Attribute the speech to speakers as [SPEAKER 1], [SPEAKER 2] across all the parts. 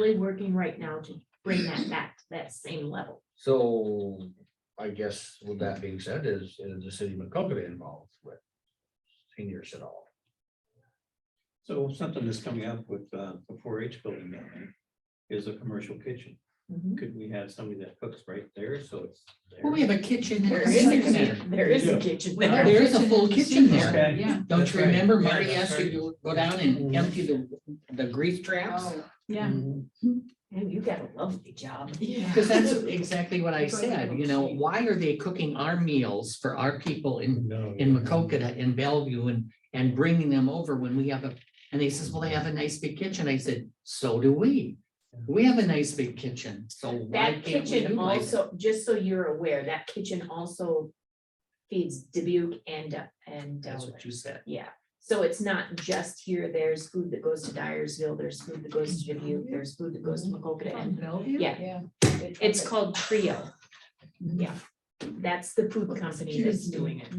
[SPEAKER 1] really working right now to bring that back to that same level.
[SPEAKER 2] So I guess with that being said, is, is the city of McCoqueta involved with seniors at all?
[SPEAKER 3] So something that's coming up with uh, the four H building down there is a commercial kitchen.
[SPEAKER 4] Mm-hmm.
[SPEAKER 3] Could we have somebody that cooks right there? So it's. there?
[SPEAKER 5] Well, we have a kitchen
[SPEAKER 1] There
[SPEAKER 5] there.
[SPEAKER 1] is, a
[SPEAKER 5] There
[SPEAKER 1] kitchen- there is a kitchen
[SPEAKER 5] Well,
[SPEAKER 1] there.
[SPEAKER 5] there is a full kitchen there.
[SPEAKER 3] Okay.
[SPEAKER 5] Yeah.
[SPEAKER 4] Don't
[SPEAKER 3] That's
[SPEAKER 4] you
[SPEAKER 3] right.
[SPEAKER 4] remember
[SPEAKER 3] Yeah,
[SPEAKER 4] Marty
[SPEAKER 3] that's
[SPEAKER 4] asked you
[SPEAKER 3] right.
[SPEAKER 4] to go down
[SPEAKER 1] Mm-hmm.
[SPEAKER 4] and empty the, the grease traps?
[SPEAKER 1] Oh.
[SPEAKER 6] Mm-hmm.
[SPEAKER 5] Yeah.
[SPEAKER 1] And you got a lovely job.
[SPEAKER 5] Yeah.
[SPEAKER 4] Because that's exactly what I
[SPEAKER 1] Go to
[SPEAKER 4] said, you know,
[SPEAKER 1] Oak Street.
[SPEAKER 4] why are they cooking our meals for our people in,
[SPEAKER 3] No.
[SPEAKER 4] in Macokota and Bellevue and, and bringing them over when we have a, and they says, well, they have a nice big kitchen. I said, so do we. We have a nice big kitchen, so
[SPEAKER 1] That
[SPEAKER 4] why can't we
[SPEAKER 1] kitchen
[SPEAKER 4] utilize it?
[SPEAKER 1] also, just so you're aware, that kitchen also feeds Dubuque and, uh, and
[SPEAKER 4] That's
[SPEAKER 1] Delaware.
[SPEAKER 4] what you said.
[SPEAKER 1] Yeah, so it's not just here, there's food that goes to Dyersville, there's food that goes to Dubuque, there's food that goes to McCoqueta and Yeah. It's called Trio. Yeah, that's the food company that's doing it.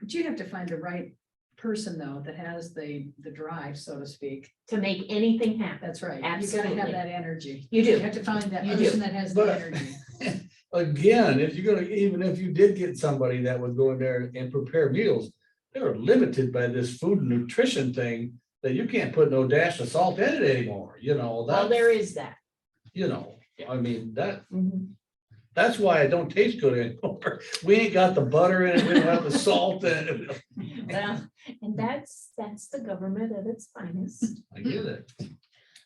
[SPEAKER 6] But you have to find the right person though, that has the, the drive, so to speak.
[SPEAKER 1] To make anything happen,
[SPEAKER 6] That's right. You gotta
[SPEAKER 1] Absolutely.
[SPEAKER 6] have that energy.
[SPEAKER 1] you
[SPEAKER 6] You
[SPEAKER 1] do.
[SPEAKER 6] have to find that
[SPEAKER 1] You do.
[SPEAKER 6] person that has the
[SPEAKER 2] But-
[SPEAKER 6] energy.
[SPEAKER 2] Again, if you're gonna, even if you did get somebody that would go in there and prepare meals, they're limited by this food and nutrition thing that you can't put no dash of salt in it anymore, you know,
[SPEAKER 1] Well, there
[SPEAKER 2] that's,
[SPEAKER 1] is that.
[SPEAKER 2] you know, I mean, that,
[SPEAKER 1] Mhm.
[SPEAKER 2] that's why it don't taste good anymore. We ain't got the butter in it, we don't have the salt in it.
[SPEAKER 1] Well, And that's, that's the government at its finest,
[SPEAKER 2] I get it.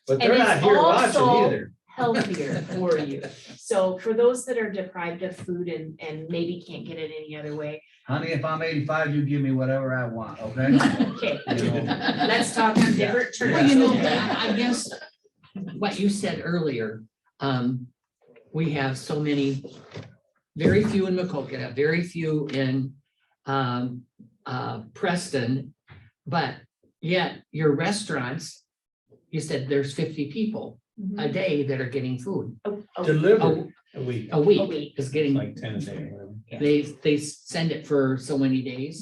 [SPEAKER 2] But
[SPEAKER 1] And
[SPEAKER 2] they're
[SPEAKER 1] it's
[SPEAKER 2] not here watching
[SPEAKER 1] also-
[SPEAKER 2] either.
[SPEAKER 1] healthier for you. So for those that are deprived of food and, and maybe can't get it any other way,
[SPEAKER 2] Honey, if I'm eighty-five, you give me whatever I want, okay?
[SPEAKER 1] okay,
[SPEAKER 2] You know,
[SPEAKER 1] let's talk on different terms.
[SPEAKER 4] Well, you know,
[SPEAKER 1] okay?
[SPEAKER 4] I I guess what you said earlier, um, we have so many, very few in Macokota, very few in, um, uh, Preston. But yet your restaurants, you said there's fifty people a
[SPEAKER 1] Mhm.
[SPEAKER 4] day that are getting food.
[SPEAKER 1] Oh, oh,
[SPEAKER 2] Delivered,
[SPEAKER 4] A,
[SPEAKER 3] A week,
[SPEAKER 4] a
[SPEAKER 1] A
[SPEAKER 4] week
[SPEAKER 1] week.
[SPEAKER 4] is getting,
[SPEAKER 3] like ten a day. whatever.
[SPEAKER 4] they, they send it for so many days.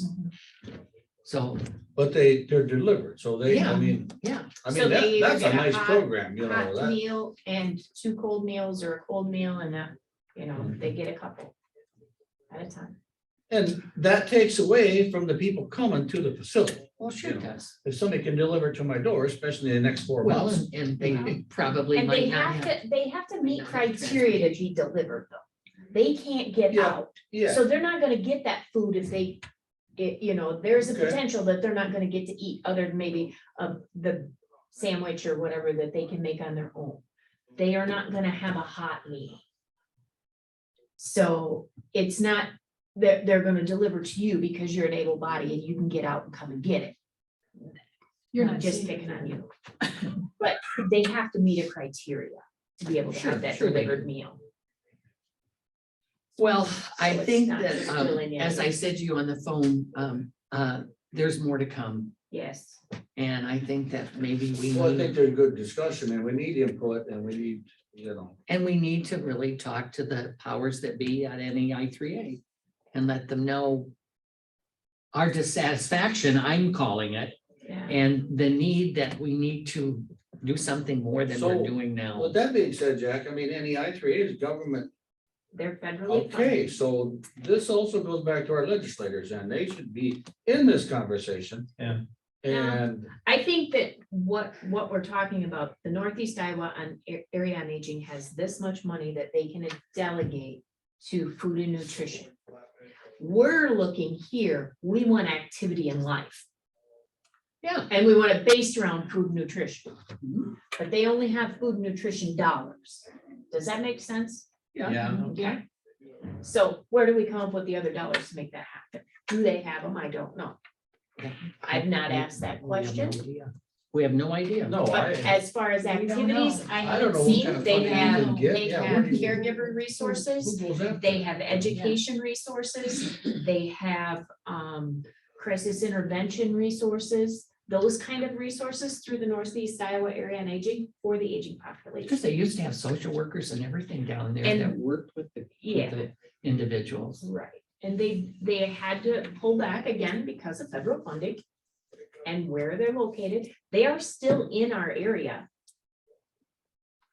[SPEAKER 4] So,
[SPEAKER 2] but they, they're delivered, so they, I
[SPEAKER 4] Yeah.
[SPEAKER 2] mean,
[SPEAKER 4] yeah,
[SPEAKER 2] I
[SPEAKER 1] So
[SPEAKER 2] mean,
[SPEAKER 1] they
[SPEAKER 2] that,
[SPEAKER 1] either
[SPEAKER 2] that's a
[SPEAKER 1] get a
[SPEAKER 2] nice
[SPEAKER 1] hot-
[SPEAKER 2] program, you know,
[SPEAKER 1] Mm-hmm. Hot
[SPEAKER 2] that,
[SPEAKER 1] meal and two cold meals or a cold meal and a, you know, they get a couple at a time.
[SPEAKER 2] and that takes away from the people coming to the facility.
[SPEAKER 4] well, sure it does.
[SPEAKER 2] If somebody can deliver to my door, especially in the next four
[SPEAKER 4] Well,
[SPEAKER 2] months,
[SPEAKER 4] and- and they probably
[SPEAKER 1] And they
[SPEAKER 4] might not
[SPEAKER 1] have
[SPEAKER 4] have.
[SPEAKER 1] to, they have to meet
[SPEAKER 4] not have
[SPEAKER 1] criteria to be delivered though. They can't get
[SPEAKER 2] Yeah,
[SPEAKER 1] out.
[SPEAKER 2] yeah,
[SPEAKER 1] So they're not gonna get that food if they, it, you know, there's a
[SPEAKER 2] Okay.
[SPEAKER 1] potential that they're not gonna get to eat other than maybe uh the sandwich or whatever that they can make on their own. They are not gonna have a hot meal. So it's not that they're gonna deliver to you because you're an able body and you can get out and come and get it.
[SPEAKER 6] You're
[SPEAKER 1] I'm
[SPEAKER 6] not
[SPEAKER 1] Just
[SPEAKER 6] seeing
[SPEAKER 1] picking
[SPEAKER 6] it.
[SPEAKER 1] on you. But they have to meet a criteria to be able to
[SPEAKER 4] Sure,
[SPEAKER 1] have that
[SPEAKER 4] sure they
[SPEAKER 1] delivered meal.
[SPEAKER 4] Well, I
[SPEAKER 1] So it's
[SPEAKER 4] think
[SPEAKER 1] not
[SPEAKER 4] that,
[SPEAKER 1] just
[SPEAKER 4] um,
[SPEAKER 1] filling in.
[SPEAKER 4] as I said to you on the phone, um, uh, there's more to come.
[SPEAKER 1] Yes.
[SPEAKER 4] And I think that maybe we
[SPEAKER 2] well, I think
[SPEAKER 4] need,
[SPEAKER 2] they're good discussion, and we need input, and we need, you know,
[SPEAKER 4] and we need to really talk to the powers that be at NEI three A and let them know our dissatisfaction, I'm calling it,
[SPEAKER 1] Yeah.
[SPEAKER 4] and the need that we need to do something more than
[SPEAKER 2] So,
[SPEAKER 4] we're doing now.
[SPEAKER 2] with that being said, Jack, I mean, NEI three is government
[SPEAKER 1] They're federally
[SPEAKER 2] Okay,
[SPEAKER 1] funded.
[SPEAKER 2] so this also goes back to our legislators and they should be in this conversation.
[SPEAKER 3] Yeah.
[SPEAKER 2] And
[SPEAKER 1] I think that what, what we're talking about, the Northeast Iowa on A- Area on Aging has this much money that they can delegate to food and nutrition. We're looking here, we want activity in life.
[SPEAKER 4] Yeah.
[SPEAKER 1] And we want it based around food and nutrition.
[SPEAKER 4] Mhm.
[SPEAKER 1] But they only have food and nutrition dollars. Does that make sense?
[SPEAKER 4] Yeah.
[SPEAKER 1] Okay. So where do we come up with the other dollars to make that happen? Do they have them? I don't know.
[SPEAKER 4] Yeah.
[SPEAKER 1] I've not asked that
[SPEAKER 4] We have no
[SPEAKER 1] question.
[SPEAKER 4] idea. We have no idea.
[SPEAKER 2] no,
[SPEAKER 1] But
[SPEAKER 2] I,
[SPEAKER 1] as far as
[SPEAKER 6] We don't
[SPEAKER 1] activities, I
[SPEAKER 2] I don't
[SPEAKER 1] haven't
[SPEAKER 2] know what kind
[SPEAKER 1] seen,
[SPEAKER 2] of
[SPEAKER 1] they
[SPEAKER 2] funding you
[SPEAKER 1] have,
[SPEAKER 2] can get.
[SPEAKER 1] they
[SPEAKER 2] Yeah,
[SPEAKER 1] have
[SPEAKER 2] where do you-
[SPEAKER 1] caregiver resources,
[SPEAKER 2] who goes after
[SPEAKER 1] they
[SPEAKER 2] it?
[SPEAKER 1] have education resources, they have, um, crisis intervention resources, those kind of resources through the Northeast Iowa Area on Aging for the aging
[SPEAKER 4] Because
[SPEAKER 1] population.
[SPEAKER 4] they used to have social workers and everything down there
[SPEAKER 1] And-
[SPEAKER 4] that worked with the,
[SPEAKER 1] Yeah.
[SPEAKER 4] with the individuals.
[SPEAKER 1] Right, and they, they had to pull back again because of federal funding and where they're located. They are still in our area.